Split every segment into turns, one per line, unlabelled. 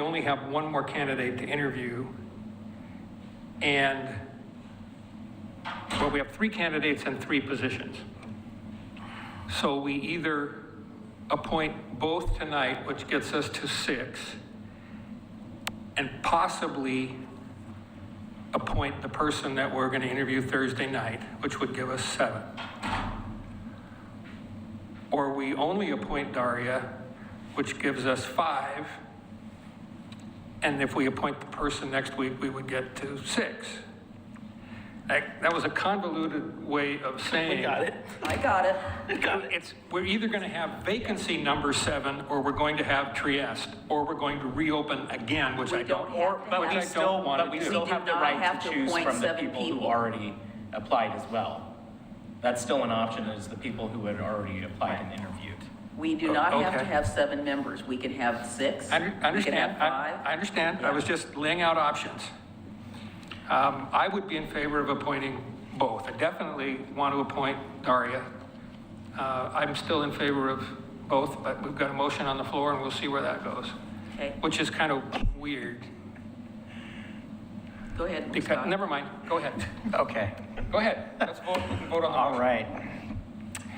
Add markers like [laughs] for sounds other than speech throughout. only have one more candidate to interview. And, well, we have three candidates and three positions. So we either appoint both tonight, which gets us to six, and possibly appoint the person that we're going to interview Thursday night, which would give us seven. Or we only appoint Daria, which gives us five. And if we appoint the person next week, we would get to six. That, that was a convoluted way of saying.
[laughs] We got it.
I got it.
It's, we're either going to have vacancy number seven, or we're going to have Trieste, or we're going to reopen again, which I
We
don't,
don't
or,
have
but
to
But
which
we
I
still,
don't
but
want
we
to
still
do.
do
have the
not
right
have
to
to
choose
appoint
from the
seven
people who
people.
already applied as well. That's still an option, is the people who had already applied and interviewed.
We do not have to
Oh, Okay.
have seven members. We can have six.
I under- I
We can
understand,
have
I
five.
I understand, I was just laying out options. Um, I would be in favor of appointing both. I definitely want to appoint Daria. Uh, I'm still in favor of both, but we've got a motion on the floor, and we'll see where that goes,
Okay,
which is kind of weird.
go ahead.
Because,
Scott.
never mind, go ahead.
Okay,
Go ahead, let's vote, we can vote on the
all
motion.
right.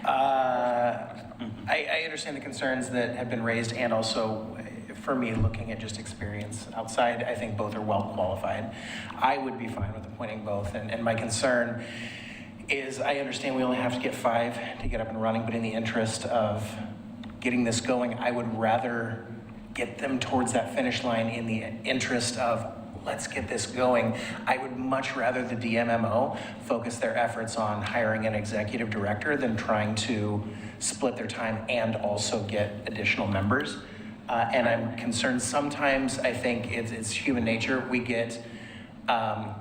Uh, I, I understand the concerns that have been raised and also uh, for me, looking at just experience outside, I think both are well qualified. I would be fine with appointing both and, and my concern is I understand we only have to get five to get up and running, but in the interest of getting this going, I would rather get them towards that finish line in the interest of let's get this going. I would much rather the DMMO focus their efforts on hiring an executive director than trying to split their time and also get additional members. Uh, and I'm concerned sometimes, I think it's, it's human nature, we get, um,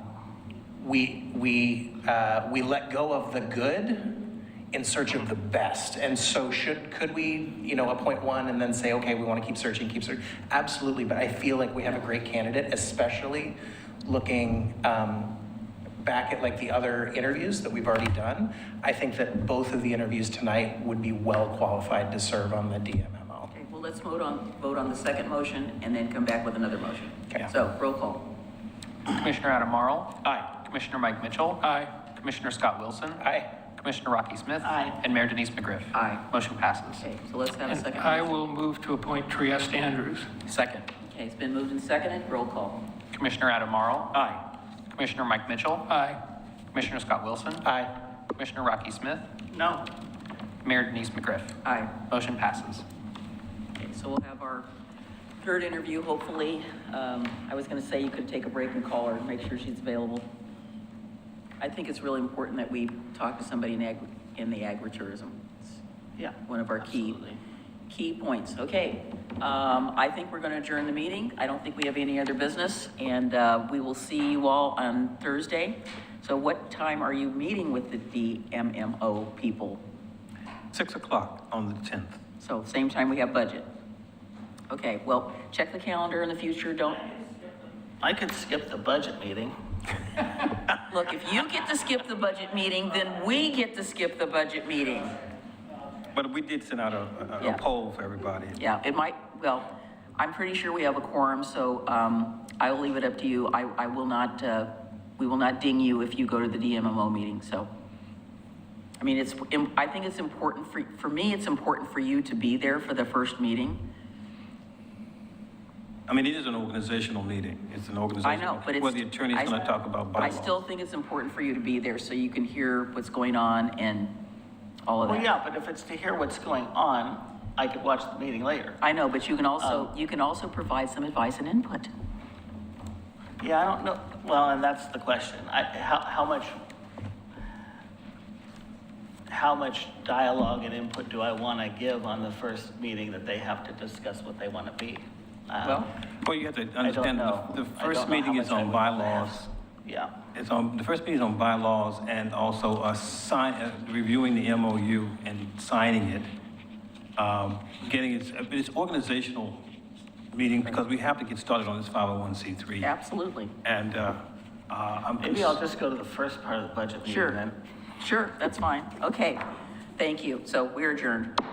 we we uh, we let go of the good in search of the best. And so should could we you know appoint one and then say okay we want to keep searching keep searching absolutely. But I feel like we have a great candidate, especially looking. Um, back at like the other interviews that we've already done i think that both of the interviews tonight would be well qualified to serve on the dmmo
Okay, well, let's vote on, vote on the second motion and then come back with another motion.
Okay.
So roll call.
Commissioner Adam Marl.
aye
Commissioner Mike Mitchell.
Aye.
Commissioner Scott Wilson.
aye
Commissioner Rocky Smith.
Aye.
And Mayor Denise McGriff.
Aye.
Motion passes.
Okay, so let's have a
And
second.
I
motion.
will move to appoint Trieste Andrews.
Second,
Okay, it's been moved and seconded. Roll call.
Commissioner Adam Marl.
aye
Commissioner Mike Mitchell.
Aye.
Commissioner Scott Wilson.
aye
Commissioner Rocky Smith.
No.
Mayor Denise McGriff.
Aye.
Motion passes.
Okay, so we'll have our third interview, hopefully. Um, I was going to say you could take a break and call her and make sure she's available. I think it's really important that we talk to somebody in ag, in the agritourism. It's
Yeah.
One of our key, key points. Okay. Um, I think we're going to adjourn the meeting. I don't think we have any other business, and, uh, we will see you all on Thursday. So what time are you meeting with the DMMO people?
Six o'clock on the 10th.
So same time we have budget. Okay, well, check the calendar in the future, don't,
I could skip the budget meeting.
[laughs] look, if you get to skip the budget meeting, then we get to skip the budget meeting.
But we did send out a- a,
Yeah.
a poll for everybody.
Yeah, it might, well, I'm pretty sure we have a quorum, so um, I will leave it up to you. I, I will not, uh, we will not ding you if you go to the DMMO meeting, so. I mean, it's, im- I think it's important for, for me, it's important for you to be there for the first meeting.
I mean, it is an organizational meeting. It's an
I
organizational.
know, but it's.
Where the attorney's
I-
going to talk about
I
bylaws.
still think it's important for you to be there so you can hear what's going on and all of
Well,
that.
yeah, but if it's to hear what's going on, I could watch the meeting later.
I know, but you can
Um,
also, you can also provide some advice and input.
Yeah, I don't know, well, and that's the question. I, how, how much, how much dialogue and input do I want to give on the first meeting that they have to discuss what they want to be? Uh,
Well,
Well, you have to
I don't
understand,
know.
the- the
I
first
don't know how
meeting is
much I
on
would have.
bylaws.
Yeah,
It's on, the first meeting is on bylaws and also uh, sign, uh, reviewing the MOU and signing it. Um, Getting, it's, it's organizational meeting because we have to get started on this 501c3.
absolutely.
And, uh, uh, I'm.
maybe I'll just go to the first part of the budget meeting
Sure.
then.
Sure, that's fine. Okay. Thank you. So we're adjourned.